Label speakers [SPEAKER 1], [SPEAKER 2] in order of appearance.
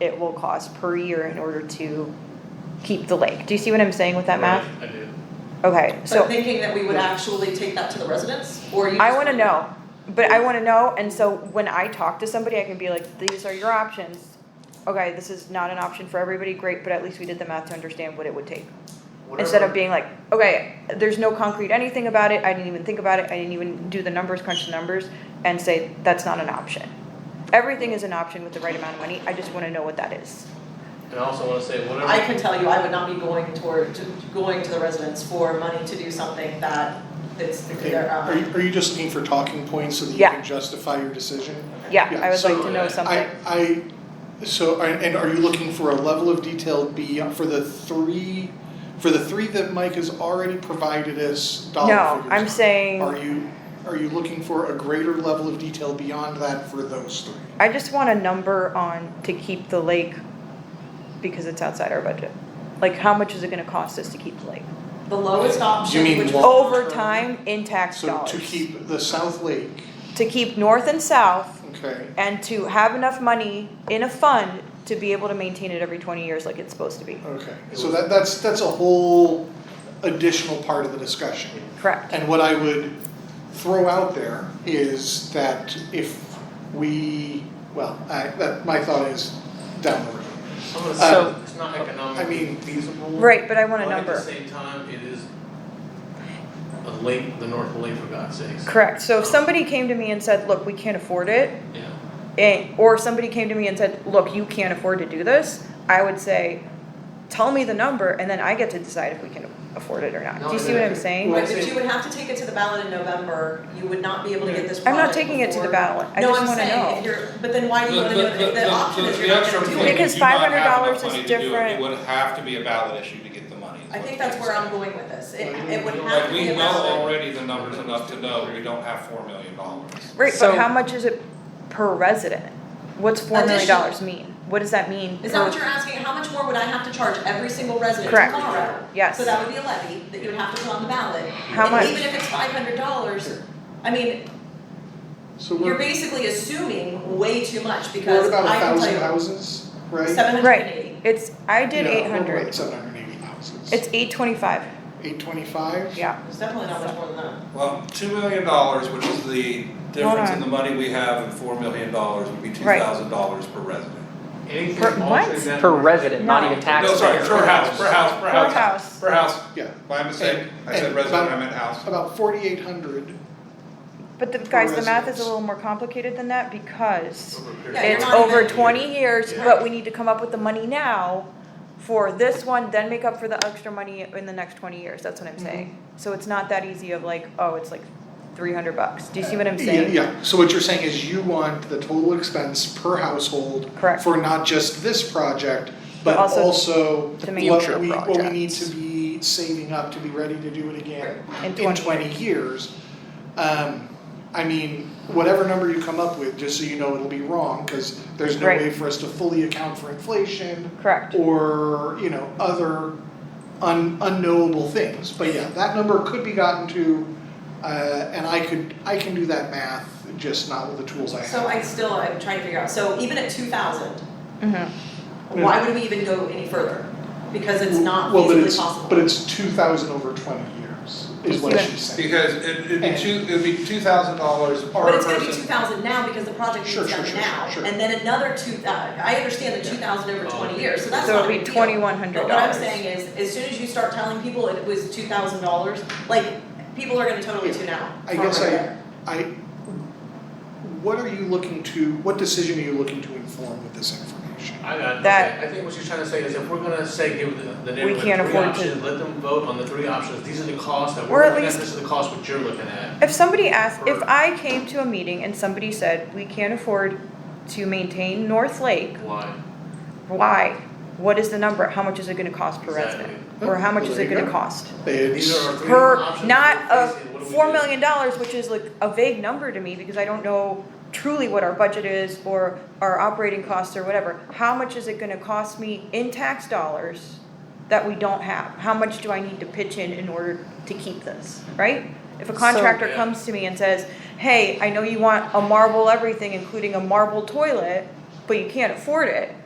[SPEAKER 1] it will cost per year in order to keep the lake. Do you see what I'm saying with that math?
[SPEAKER 2] I do.
[SPEAKER 1] Okay, so.
[SPEAKER 3] But thinking that we would actually take that to the residents, or you
[SPEAKER 1] I
[SPEAKER 3] just-
[SPEAKER 1] wanna know, but I wanna know, and so when I talk to somebody, I can be like, these are your options. Okay, this is not an option for everybody, great, but at least we did the math to understand what it would take. Instead of
[SPEAKER 2] Whatever-
[SPEAKER 1] being like, okay, there's no concrete anything about it, I didn't even think about it, I didn't even do the numbers, crunch the numbers, and say, that's not an option. Everything is an option with the right amount of money, I just wanna know what that is.
[SPEAKER 2] And I also wanna say, whatever.
[SPEAKER 3] I can tell you, I would not be going toward, to- going to the residents for money to do something that it's
[SPEAKER 4] Okay,
[SPEAKER 3] their,
[SPEAKER 4] are you,
[SPEAKER 3] um,
[SPEAKER 4] are you just looking for talking points so that you
[SPEAKER 1] Yeah.
[SPEAKER 4] can justify your decision?
[SPEAKER 1] Yeah,
[SPEAKER 4] Yeah,
[SPEAKER 1] I would
[SPEAKER 4] so
[SPEAKER 1] like to know
[SPEAKER 2] I-
[SPEAKER 1] something.
[SPEAKER 4] I, I, so, and and are you looking for a level of detail beyond, for the three, for the three that Mike has already provided us dollar
[SPEAKER 1] No,
[SPEAKER 4] figures?
[SPEAKER 1] I'm saying,
[SPEAKER 4] Are you, are you looking for a greater level of detail beyond that for those three?
[SPEAKER 1] I just want a number on to keep the lake because it's outside our budget. Like, how much is it gonna cost us to keep the lake?
[SPEAKER 3] the lowest option,
[SPEAKER 4] You mean
[SPEAKER 3] which.
[SPEAKER 4] long-
[SPEAKER 1] Over time in tax
[SPEAKER 4] So
[SPEAKER 1] dollars.
[SPEAKER 4] to keep the South Lake,
[SPEAKER 1] To keep north and south
[SPEAKER 4] okay,
[SPEAKER 1] and to have enough money in a fund to be able to maintain it every twenty years like it's supposed to be.
[SPEAKER 4] okay, so that, that's, that's a whole additional part of the discussion.
[SPEAKER 1] Correct.
[SPEAKER 4] And what I would throw out there is that if we, well, I, that, my thought is down the road.
[SPEAKER 2] I'm gonna
[SPEAKER 4] So-
[SPEAKER 2] say, it's not
[SPEAKER 4] I
[SPEAKER 2] economically
[SPEAKER 4] mean-
[SPEAKER 2] feasible.
[SPEAKER 1] Right, but I want a
[SPEAKER 2] But at the
[SPEAKER 1] number.
[SPEAKER 2] same time, it is a lake, the North Lake, for God's sakes.
[SPEAKER 1] Correct. So if somebody came to me and said, look, we can't afford it,
[SPEAKER 2] Yeah,
[SPEAKER 1] and, or somebody came to me and said, look, you can't afford to do this, I would say, tell me the number and then I get to decide if we can afford it or not. Do you see what I'm saying?
[SPEAKER 3] Right, but you would have to take it to the ballot in November, you would not be able to get this
[SPEAKER 1] I'm not
[SPEAKER 3] product
[SPEAKER 1] taking it to the
[SPEAKER 3] before-
[SPEAKER 1] ballot. I
[SPEAKER 3] No,
[SPEAKER 1] just
[SPEAKER 3] I'm
[SPEAKER 1] wanna know.
[SPEAKER 3] saying, if you're, but then why do you
[SPEAKER 5] The-
[SPEAKER 3] wanna do it,
[SPEAKER 5] the-
[SPEAKER 3] if
[SPEAKER 5] the-
[SPEAKER 3] the option
[SPEAKER 5] the-
[SPEAKER 3] is
[SPEAKER 5] the
[SPEAKER 3] you're not
[SPEAKER 5] extra
[SPEAKER 3] gonna do it?
[SPEAKER 5] thing is
[SPEAKER 1] Because
[SPEAKER 5] you not have enough
[SPEAKER 1] $500 is
[SPEAKER 5] money to do it.
[SPEAKER 1] different.
[SPEAKER 5] It would have to be a ballot issue to get the money. is
[SPEAKER 3] I
[SPEAKER 5] what
[SPEAKER 3] think
[SPEAKER 5] they're
[SPEAKER 3] that's where
[SPEAKER 5] saying.
[SPEAKER 3] I'm going with this, it,
[SPEAKER 2] Like,
[SPEAKER 3] it would
[SPEAKER 2] we
[SPEAKER 3] have
[SPEAKER 5] Like,
[SPEAKER 3] to be
[SPEAKER 5] we
[SPEAKER 3] a
[SPEAKER 5] know
[SPEAKER 3] ballot,
[SPEAKER 5] already the numbers enough to know we don't have four million dollars.
[SPEAKER 1] Right,
[SPEAKER 6] So-
[SPEAKER 1] but how much is it per resident? What's four million dollars mean? What does that mean?
[SPEAKER 3] is that what
[SPEAKER 1] per-
[SPEAKER 3] you're asking, how much more would I have to charge every single resident tomorrow?
[SPEAKER 1] Correct. Yes.
[SPEAKER 3] So that would be a levy that you would have to put on the ballot.
[SPEAKER 1] How
[SPEAKER 3] And
[SPEAKER 1] much?
[SPEAKER 3] even if it's five hundred dollars, I mean,
[SPEAKER 4] So
[SPEAKER 3] you're
[SPEAKER 4] we're,
[SPEAKER 3] basically assuming way too much
[SPEAKER 4] we're
[SPEAKER 3] because
[SPEAKER 4] about a
[SPEAKER 3] I can
[SPEAKER 4] thousand
[SPEAKER 3] tell
[SPEAKER 4] houses,
[SPEAKER 3] you,
[SPEAKER 4] right?
[SPEAKER 3] seven hundred and eighty.
[SPEAKER 1] Right, it's, I did
[SPEAKER 4] No,
[SPEAKER 1] eight
[SPEAKER 4] We're
[SPEAKER 1] hundred.
[SPEAKER 4] about seven hundred and eighty houses.
[SPEAKER 1] It's eight twenty-five,
[SPEAKER 4] Eight twenty-five?
[SPEAKER 1] yeah.
[SPEAKER 3] It's definitely not much more than that.
[SPEAKER 5] Well, two million dollars, which is the difference in the money we have and four million dollars would be two
[SPEAKER 1] Right.
[SPEAKER 5] thousand dollars per resident.
[SPEAKER 2] anything
[SPEAKER 1] Per- what?
[SPEAKER 2] altering that.
[SPEAKER 6] Per resident, not
[SPEAKER 1] No.
[SPEAKER 6] even
[SPEAKER 5] No, sorry,
[SPEAKER 6] taxpayer.
[SPEAKER 5] per house, per house, per
[SPEAKER 1] Per
[SPEAKER 5] house.
[SPEAKER 1] house.
[SPEAKER 5] Per house,
[SPEAKER 4] Yeah,
[SPEAKER 5] my mistake, I said
[SPEAKER 4] And-
[SPEAKER 5] resident, I meant house.
[SPEAKER 4] about forty-eight hundred,
[SPEAKER 1] But the, guys, the math is
[SPEAKER 4] residents.
[SPEAKER 1] a little more complicated than that because
[SPEAKER 2] Over a period.
[SPEAKER 3] Yeah, you're
[SPEAKER 1] it's
[SPEAKER 3] not
[SPEAKER 1] over
[SPEAKER 3] even-
[SPEAKER 1] twenty years,
[SPEAKER 2] Yeah.
[SPEAKER 1] but we need to come up with the money now for this one, then make up for the extra money in the next twenty years, that's
[SPEAKER 3] Mm-hmm.
[SPEAKER 1] what I'm saying. So it's not that easy of like, oh, it's like three hundred bucks, do you see what I'm
[SPEAKER 4] Yeah,
[SPEAKER 1] saying?
[SPEAKER 4] yeah, so what you're saying is you want the total expense per household
[SPEAKER 1] Correct.
[SPEAKER 4] for not just this project, but
[SPEAKER 1] Also
[SPEAKER 4] also
[SPEAKER 1] the
[SPEAKER 4] what we,
[SPEAKER 1] future
[SPEAKER 4] what we need
[SPEAKER 1] projects.
[SPEAKER 4] to be saving up to be ready to do it again
[SPEAKER 1] In
[SPEAKER 4] in
[SPEAKER 1] 20
[SPEAKER 4] twenty years. Um, I mean, whatever number you come up with, just so you know, it'll be wrong, cause there's no
[SPEAKER 1] Right.
[SPEAKER 4] way for us to fully account for inflation
[SPEAKER 1] Correct,
[SPEAKER 4] or, you know, other un- unknowable things. But yeah, that number could be gotten to, uh, and I could, I can do that math, just not with the tools I have.
[SPEAKER 3] So I still, I'm trying to figure out, so even at two thousand,
[SPEAKER 1] Mhm.
[SPEAKER 3] Mm-hmm. why would we even go any further? Because it's not
[SPEAKER 4] Well, but
[SPEAKER 3] feasibly
[SPEAKER 4] it's-
[SPEAKER 3] possible.
[SPEAKER 4] But it's two thousand over twenty years, is what
[SPEAKER 1] Yeah.
[SPEAKER 4] she's saying.
[SPEAKER 5] Because it, it'd be two, it'd be two thousand dollars per person.
[SPEAKER 3] But it's gonna be two thousand now because the project
[SPEAKER 4] Sure,
[SPEAKER 3] needs
[SPEAKER 4] sure,
[SPEAKER 3] done
[SPEAKER 4] sure,
[SPEAKER 3] now,
[SPEAKER 4] sure.
[SPEAKER 3] and then another two thou- I understand the
[SPEAKER 4] Yeah.
[SPEAKER 3] two thousand over
[SPEAKER 2] Oh,
[SPEAKER 3] twenty
[SPEAKER 2] okay.
[SPEAKER 3] years, so that's
[SPEAKER 1] So
[SPEAKER 3] not
[SPEAKER 1] it'd
[SPEAKER 3] a
[SPEAKER 1] be
[SPEAKER 3] big deal.
[SPEAKER 1] $2,100.
[SPEAKER 3] But what I'm saying is, as soon as you start telling people it was two thousand dollars, like, people are gonna totally tune out.
[SPEAKER 4] I
[SPEAKER 3] from
[SPEAKER 4] guess
[SPEAKER 3] right
[SPEAKER 4] I,
[SPEAKER 3] there.
[SPEAKER 4] I, what are you looking to, what decision are you looking to inform with this information?
[SPEAKER 2] I got it.
[SPEAKER 1] That-
[SPEAKER 2] Okay, I think what she's trying to say is if we're gonna say give the, the neighborhood
[SPEAKER 1] can't
[SPEAKER 2] three
[SPEAKER 1] afford to-
[SPEAKER 2] options, let them vote on the three options, these are the costs that
[SPEAKER 1] Or
[SPEAKER 2] we're
[SPEAKER 1] at
[SPEAKER 2] looking at,
[SPEAKER 1] least-
[SPEAKER 2] this is the cost what you're looking at.
[SPEAKER 1] If somebody asked, if
[SPEAKER 2] Or-
[SPEAKER 1] I came to a meeting and somebody said, we can't afford to maintain North Lake,
[SPEAKER 2] Why?
[SPEAKER 1] why? What is the number? How much is it gonna cost per resident? Or how much is it gonna cost?
[SPEAKER 2] These are our three
[SPEAKER 1] Per,
[SPEAKER 2] options
[SPEAKER 1] not
[SPEAKER 2] we're
[SPEAKER 1] a
[SPEAKER 2] facing, what do we
[SPEAKER 1] four
[SPEAKER 2] do?
[SPEAKER 1] million dollars, which is like a vague number to me, because I don't know truly what our budget is or our operating costs or whatever. How much is it gonna cost me in tax dollars that we don't have? How much do I need to pitch in in order to keep this, right? If a
[SPEAKER 6] So-
[SPEAKER 1] contractor
[SPEAKER 2] Yeah.
[SPEAKER 1] comes to me and says, hey, I know you want a marble everything, including a marble toilet, but you can't afford it,